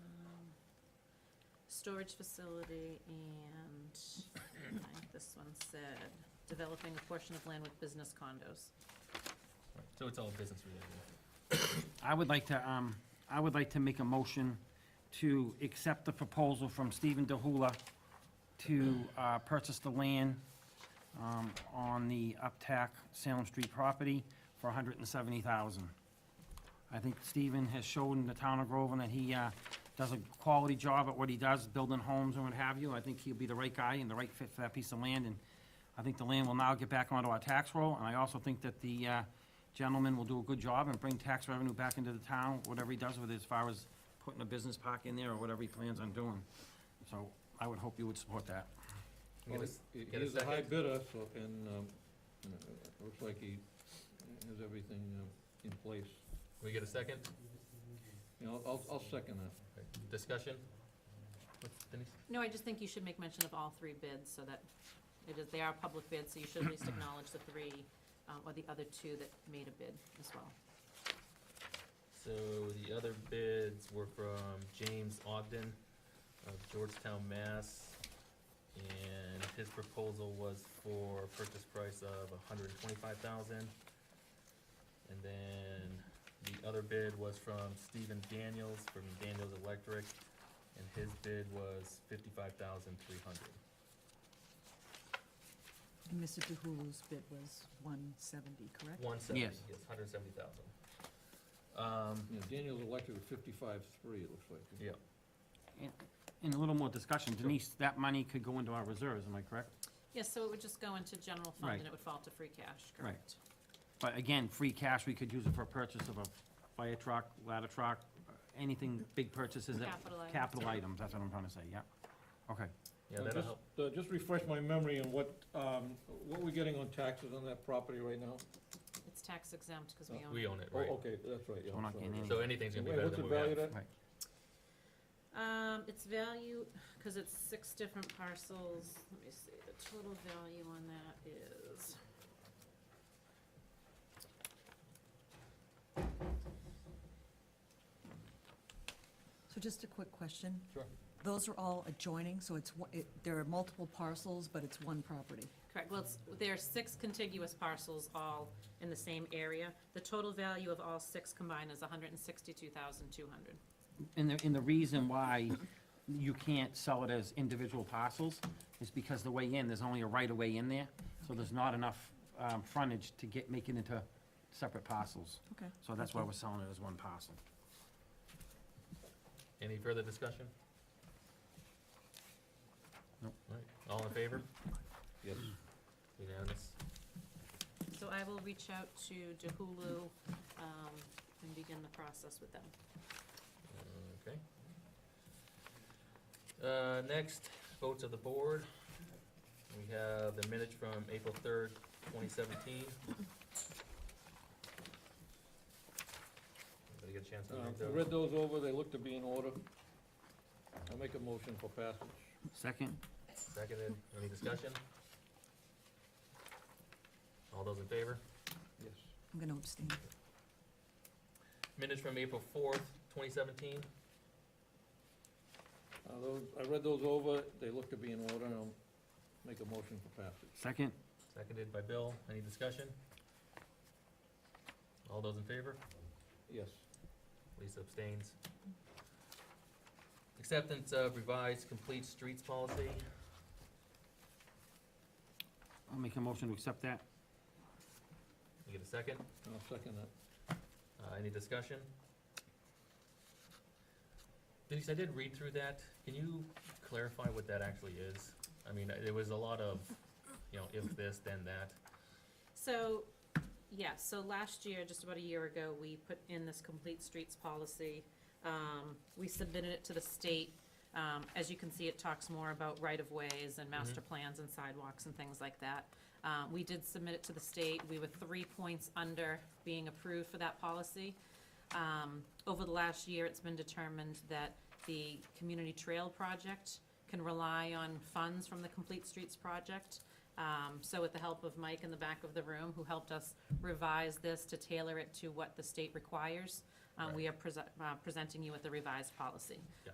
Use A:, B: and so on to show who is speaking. A: Um, storage facility, and I think this one said, developing a portion of land with business condos.
B: Right, So it's all business related.
C: I would like to, um, I would like to make a motion to accept the proposal from Stephen DeHulla to, uh, purchase the land, um, on the Uptack Salem Street property for a hundred and seventy thousand. I think Stephen has shown in the town of Groveland that he, uh, does a quality job at what he does, building homes and what have you. I think he'll be the right guy and the right fit for that piece of land, and I think the land will now get back onto our tax roll, and I also think that the, uh, gentleman will do a good job and bring tax revenue back into the town, whatever he does with it, as far as putting a business park in there or whatever he plans on doing. So I would hope you would support that.
B: Can I
D: Well,
B: get a
D: he-
B: get a
D: He's a high
B: second?
D: bidder, so, and, um, uh, it looks like he has everything um, in place.
B: We get a second?
D: You know, I'll, I'll second that.
B: Okay, Discussion? What's- Denise?
A: No, I just think you should make mention of all three bids, so that, it is, they are public bids, so you should at least acknowledge the three, um, or the other two that made a bid as well.
B: So the other bids were from James Ogden of Georgetown, Mass. And his proposal was for purchase price of a hundred and twenty-five thousand. And then the other bid was from Stephen Daniels from Daniels Electric, and his bid was fifty-five thousand three hundred.
E: And Mr. DeHulu's bid was 170, correct?
B: One seventy, yes,
C: Yes.
B: hundred and seventy thousand. Um,
D: Yeah, Daniel's elected at fifty-five-three, it looks like.
B: yeah,
C: And a little more discussion, Denise, that money could go into our reserves, am I correct?
A: Yes, so it would just go into general fund, and
C: Right.
A: it would fall to free cash,
C: Right.
A: correct?
C: But again, free cash, we could use it for purchase of a fire truck, ladder truck, anything, big purchases. that-
A: Capital items.
C: Capital items, that's what I'm trying to say, yeah. Okay,
B: yeah,
D: Uh,
B: that'll
D: just-
B: help.
D: Uh, just refresh my memory on what, um, what we're getting on taxes on that property right now?
A: It's tax exempt, because
D: Uh,
A: we own
B: We
A: it.
B: own it,
D: Oh,
B: right?
D: okay, that's right, yeah.
C: So we're not
D: sorry.
C: getting any-
B: So anything's gonna be
D: Wait,
B: better
D: what's
B: than
D: the
B: what we
D: value
B: have.
D: of that?
C: right.
A: Um, it's value, because it's six different parcels, let me see, the total value on that is.
E: So just a quick question.
B: Sure.
E: Those are all adjoining, so it's, one- it- there are multiple parcels, but it's one property.
A: Correct, well, it's, there are six contiguous parcels all in the same area. The total value of all six combined is hundred and sixty-two thousand two hundred.
C: And the, and the reason why you can't sell it as individual parcels is because the way in, there's only a right-of-way in there, so there's not enough, um, frontage to get, make it into separate parcels.
E: Okay.
C: So that's why we're selling it as one parcel.
B: Any further discussion?
C: Nope.
B: Alright, all in favor?
D: Yes.
B: Unanimous.
A: So I will reach out to DeHulu, um, and begin the process with them.
B: Okay. Uh, next, votes of the board. We have the minutes from April third, twenty seventeen. Everybody get a chance to
D: Uh,
B: read
D: I
B: those?
D: read those over, they look to be in order. I'll make a motion for passage.
C: Second?
B: Seconded, any discussion? All those in favor?
D: Yes.
E: I'm going to abstain.
B: Minutes from April fourth, twenty seventeen.
D: Uh, those, I read those over, they look to be in order, and I'll make a motion for passage.
C: Second?
B: Seconded by Bill. Any discussion? All those in favor?
D: Yes.
B: Lisa abstains. Acceptance of revised complete streets policy.
C: I'll make a motion to accept that.
B: You get a second?
D: I'll second that.
B: Uh, any discussion? Denise, I did read through that. Can you clarify what that actually is? I mean, there was a lot of, you know, if this, then that.
A: So, yeah, so last year, just about a year ago, we put in this complete streets policy. Um, we submitted it to the state. Um, as you can see, it talks more about right-of-ways and master plans and sidewalks and things like that. Uh, we did submit it to the state. We were three points under being approved for that policy. Um, over the last year, it's been determined that the community trail project can rely on funds from the Complete Streets project. Um, so with the help of Mike in the back of the room, who helped us revise this to tailor it to what the state requires, um, we are prese- uh, presenting you with the revised policy.
B: Yeah.